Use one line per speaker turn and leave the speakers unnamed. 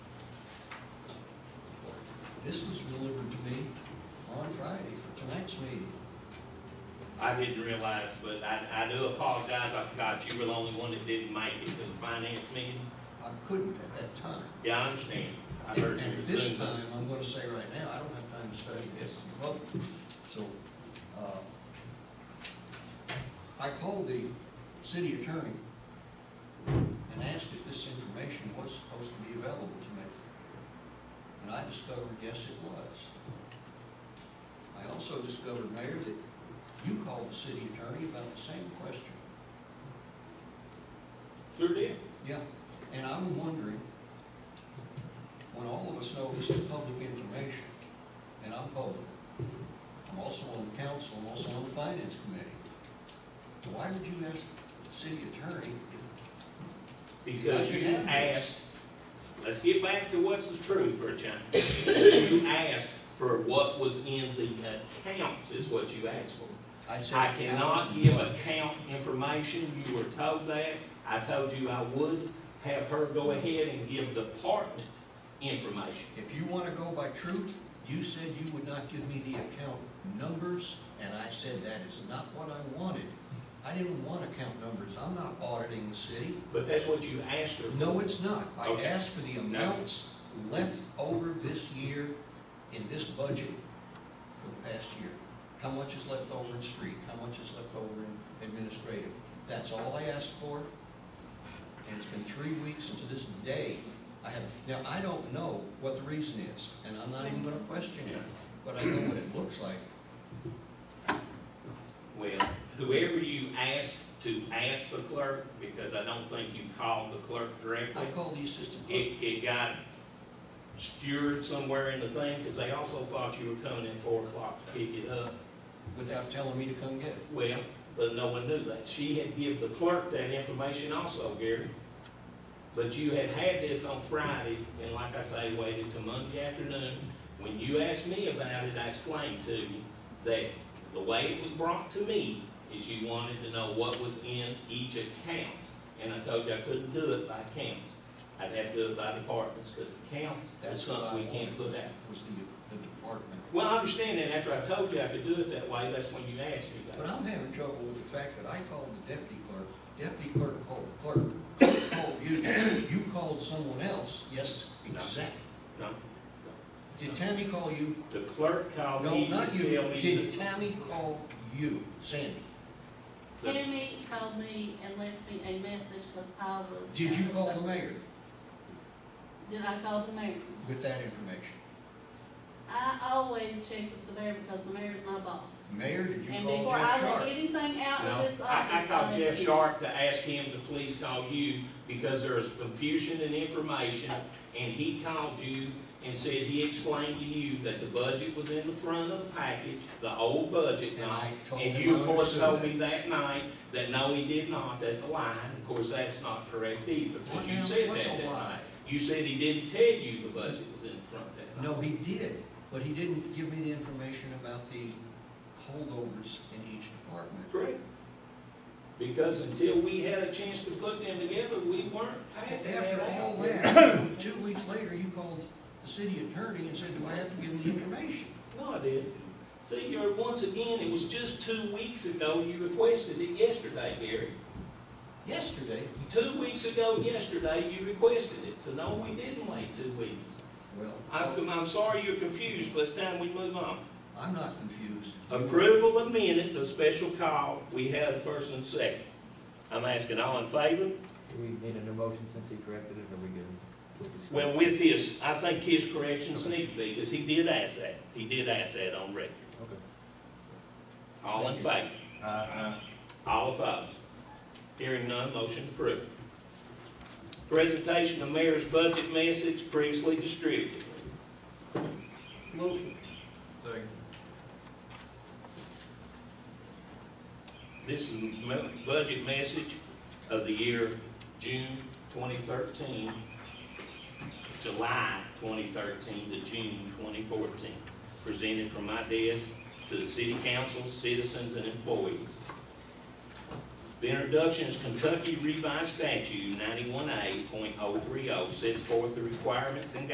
This was delivered to me on Friday for tonight's meeting.
I didn't realize, but I, I do apologize, I forgot you were the only one that didn't make it to the finance meeting.
I couldn't at that time.
Yeah, I understand. I heard
And
you
at
were
this
Zoom.
time, I'm gonna say right now, I don't have time to study this and vote. So, uh, I called the city attorney and asked if this information was supposed to be available to me. And I discovered, yes, it was. I also discovered, Mayor, that you called the city attorney about the same question.
Sure did.
Yeah, and I'm wondering, when all of us know this is public information, and I'm public, I'm also on the council, I'm also on the finance committee, why would you ask the city attorney if
Because
Because you
you
have
asked, let's get back to what's the truth for a change. You asked for what was in the accounts is what you asked for.
I said?
I cannot give account information, you were told that, I told you I would have her go ahead and give department information.
If you want to go by truth, you said you would not give me the account numbers, and I said that is not what I wanted. I didn't want account numbers, I'm not auditing the city.
But that's what you asked her for.
No, it's not. I
Okay.
asked for the amounts left over this year in this budget for the past year. How much is left over in street? How much is left over in administrative? That's all I asked for. And it's been three weeks and to this day, I have, now, I don't know what the reason is, and I'm not even gonna question it, but I know what it looks like.
Well, whoever you asked to ask the clerk, because I don't think you called the clerk
I
directly,
called the assistant clerk.
it, it got skewered somewhere in the thing, because they also thought you were coming in four o'clock to pick it up.
without telling me to come get it.
Well, but no one knew that. She had give the clerk that information also, Gary. But you had had this on Friday, and like I say, waited till Monday afternoon. When you asked me about it, I explained to you that the way it was brought to me is you wanted to know what was in each account. And I told you I couldn't do it by accounts. I'd have to do it by departments, because accounts is
That's what I
something we
wanted,
can't put
was
out.
was the, the department.
Well, I understand that after I told you I could do it that way, that's when you asked me about it.
But I'm having trouble with the fact that I called the deputy clerk, deputy clerk called the clerk, clerk called you, you called someone else, yes, exactly.
No.
Did Tammy call you?
The clerk called
No,
me to
not you,
Oh, tell me
did
that-
Tammy call you, Sandy?
Tammy called me and left me a message because I was.
Did you call the mayor
Did I call the mayor?
with that information?
I always check with the mayor because the mayor's my boss.
Mayor, did you
And
call
before
Jeff
I let
Sharp?
anything out
No,
of this
I, I
office,
called
let
Jeff
you-
Sharp to ask him to please call you because there is confusion in information. And he called you and said he explained to you that the budget was in the front of the package, the old budget
And
now.
I told him
Um, And
I
you, of course,
understood
told
that.
me that night that no, he did not, that's a lie. Of course, that's not correct either,
What
because you
now?
said
What's
that
a
that
lie?
night. You said he didn't tell you the budget was in the front that night.
No, he did, but he didn't give me the information about the holdovers in each department.
Correct. Because until we had a chance to put them together, we weren't passing that
After all
out.
that, two weeks later, you called the city attorney and said, do I have to give him the information?
No, I didn't. See, you're, once again, it was just two weeks ago, you requested it yesterday, Gary.
Yesterday,
Two weeks ago yesterday, you requested it, so no, we didn't wait two weeks.
well,
I'm, I'm sorry you're confused, but it's time we move on.
I'm not confused.
Approval of minutes, a special call, we had a first and second. I'm asking all in favor?
Do we need a new motion since he corrected it, or we good? We'll just-
Well, with his, I think his corrections need to be, because he did ask that, he did ask that on record.
Okay.
All in favor?
Uh,
All opposed? Hearing none, motion approved. Presentation of mayor's budget message previously distributed.
Second.
This is the mo- budget message of the year June 2013, July 2013 to June 2014, presented from my desk to the city council, citizens, and employees. The introduction is oh Kentucky Revised Statute 91A.030 sets forth the requirements and